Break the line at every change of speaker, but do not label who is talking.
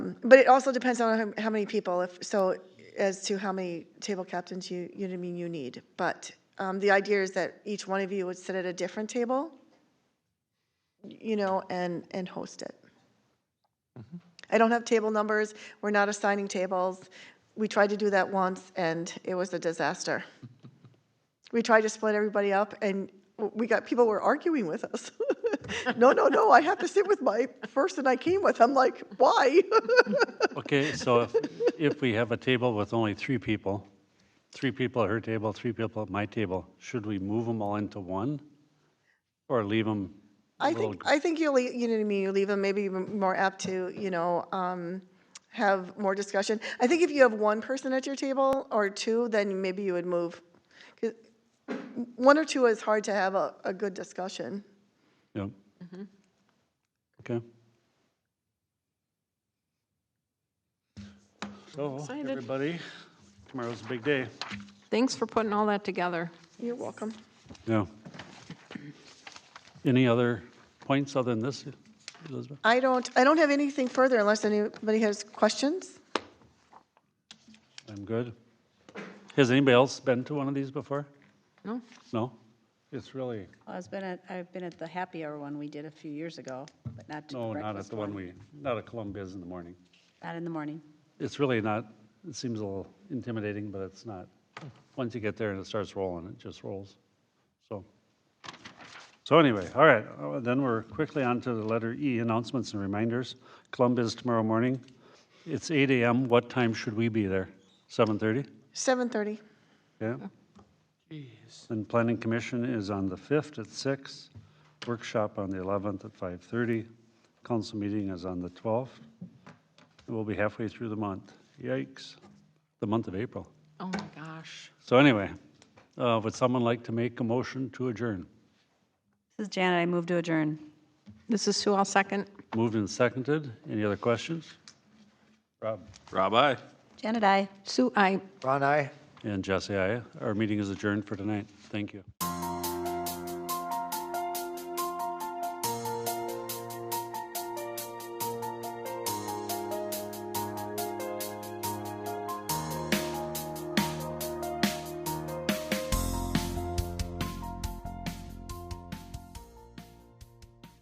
But it also depends on how, how many people, if, so as to how many table captains you, you know what I mean, you need. But, um, the idea is that each one of you would sit at a different table, you know, and, and host it. I don't have table numbers, we're not assigning tables. We tried to do that once and it was a disaster. We tried to split everybody up and w- we got, people were arguing with us. No, no, no, I have to sit with my person I came with. I'm like, why?
Okay, so if, if we have a table with only three people, three people at her table, three people at my table, should we move them all into one? Or leave them?
I think, I think you'll, lea- you know what I mean, you leave them maybe even more apt to, you know, um, have more discussion. I think if you have one person at your table or two, then maybe you would move. 'Cause One or two is hard to have a, a good discussion.
Yep. Okay. So,
Excited.
everybody, tomorrow's a big day.
Thanks for putting all that together.
You're welcome.
Yeah. Any other points other than this, Elizabeth?
I don't, I don't have anything further unless anybody has questions.
I'm good. Has anybody else been to one of these before?
No?
No? It's really,
Well, I've been at, I've been at the Happy Hour one we did a few years ago, but not to the
no, not at
breakfast
the one we, not at Columbia's in the morning.
Not in the morning.
It's really not, it seems a little intimidating, but it's not. Once you get there and it starts rolling, it just rolls. So, so anyway, all right, uh, then we're quickly on to the letter E, announcements and reminders. Columbia's tomorrow morning. It's 8 AM. What time should we be there? 7:30?
7:30.
Yeah. And Planning Commission is on the 5th at six. workshop on the 11th at 5:30, council meeting is on the 12th. And We'll be halfway through the month. Yikes, the month of April.
Oh, my gosh.
So anyway, uh, would someone like to make a motion to adjourn?
This is Janet, I move to adjourn.
This is Sue, I'll second.
Moved and seconded, any other questions? Rob?
Rob, aye.
Janet, I.
Sue, I.
Ron, aye.
And Jesse, aye. Our meeting is adjourned for tonight. Thank you.